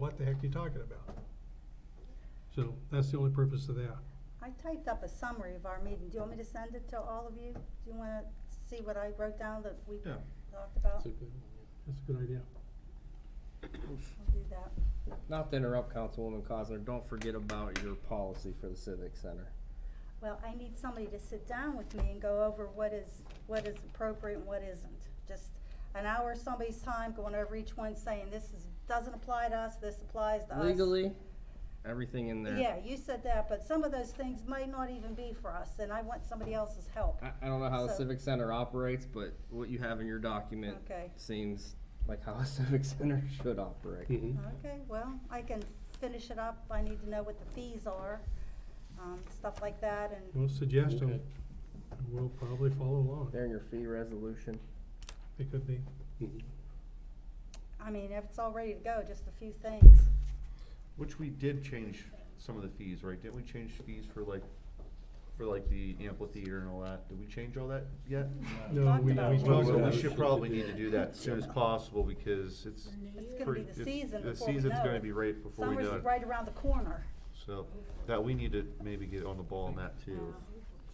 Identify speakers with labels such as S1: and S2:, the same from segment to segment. S1: what the heck you talking about? So that's the only purpose of that.
S2: I typed up a summary of our meeting. Do you want me to send it to all of you? Do you wanna see what I wrote down that we
S1: Yeah.
S2: talked about?
S3: It's a good one,
S1: That's a good idea.
S2: I'll do that.
S3: yeah. Not to interrupt Councilwoman Cosner, don't forget about your policy for the civic center.
S2: Well, I need somebody to sit down with me and go over what is, what is appropriate and what isn't. Just an hour of somebody's time going over each one saying, this is, doesn't apply to us, this applies to us.
S3: Legally, everything in there.
S2: Yeah, you said that, but some of those things might not even be for us, and I want somebody else's help.
S3: I, I don't know how the
S2: So-
S3: civic center operates, but what you have in your document
S2: Okay.
S3: seems like how a civic center should operate.
S1: Mm-hmm.
S2: Okay, well, I can finish it up. I need to know what the fees are, um, stuff like that, and
S1: We'll suggest them,
S4: Okay.
S1: and we'll probably follow along.
S3: They're in your fee resolution.
S1: It could be.
S2: I mean, if it's all ready to go, just a few things.
S5: Which we did change some of the fees, right? Didn't we change fees for like, for like the amphitheater and all that? Did we change all that yet?
S1: No, we, we
S2: about it.
S5: Well,
S1: talked about
S5: We
S1: it.
S5: should probably need to do that as soon as possible because it's.
S2: It's gonna
S5: pretty-
S2: be the
S5: it's-
S2: season
S5: The
S2: before we
S5: season's
S2: know
S5: gonna
S2: it.
S5: be right before we
S2: Summer's
S5: know it.
S2: right around the corner.
S5: So that we need to maybe get on the ball on that too.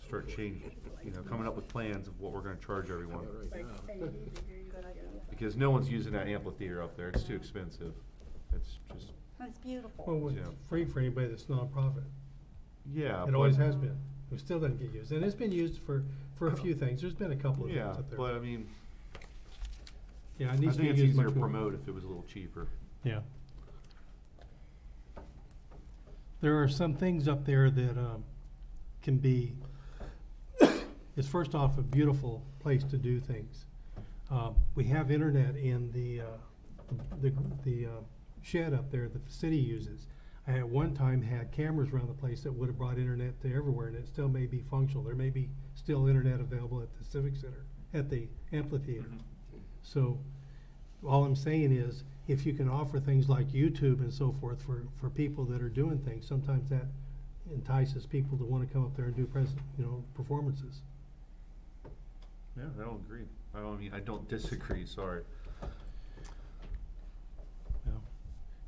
S5: Start changing, you know, coming up with plans of what we're gonna charge everyone.
S2: Good idea.
S5: Because no one's using that amphitheater up there. It's too expensive. It's just,
S2: And It's beautiful.
S1: Well, it's
S5: Yeah.
S1: free for anybody that's nonprofit.
S5: yeah.
S1: It always
S5: but-
S1: has been. It still doesn't get used. And it's been used for, for a few things. There's been a couple of things
S5: Yeah,
S1: up there.
S5: but I mean,
S1: Yeah, it
S5: I
S1: needs to be
S5: think it's
S1: used
S5: easier
S1: much
S5: to
S1: more.
S5: promote if it was a little cheaper.
S1: Yeah. There are some things up there that, um, can be, it's first off a beautiful place to do things. Uh, we have internet in the, uh, the, the uh, shed up there that the city uses. I at one time had cameras around the place that would have brought internet to everywhere and it still may be functional. There may be still internet available at the civic center, at the amphitheater. So, all I'm saying is, if you can offer things like YouTube and so forth for, for people that are doing things, sometimes that entices people to wanna come up there and do present, you know, performances.
S5: Yeah, I don't agree. I don't mean, I don't disagree, sorry.
S1: Yeah.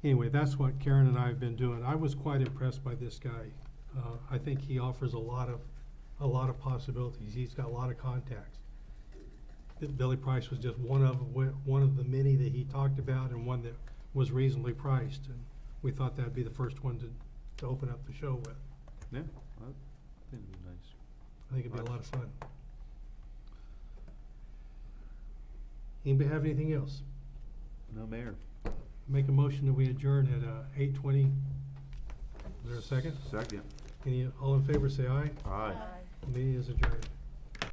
S1: Anyway, that's what Karen and I have been doing. I was quite impressed by this guy. Uh, I think he offers a lot of, a lot of possibilities. He's got a lot of contacts. That Billy Price was just one of, wh- one of the many that he talked about and one that was reasonably priced. And we thought that'd be the first one to, to open up the show with.
S5: Yeah, I think it'd be nice.
S1: I think it'd be a lot of fun. Anybody have anything else?
S5: No mayor.
S1: Make a motion that we adjourn at, uh, eight twenty. Is there a second?
S5: Second.
S1: Any, all in favor, say aye.
S5: Aye.
S2: Bye.
S1: Meeting is adjourned.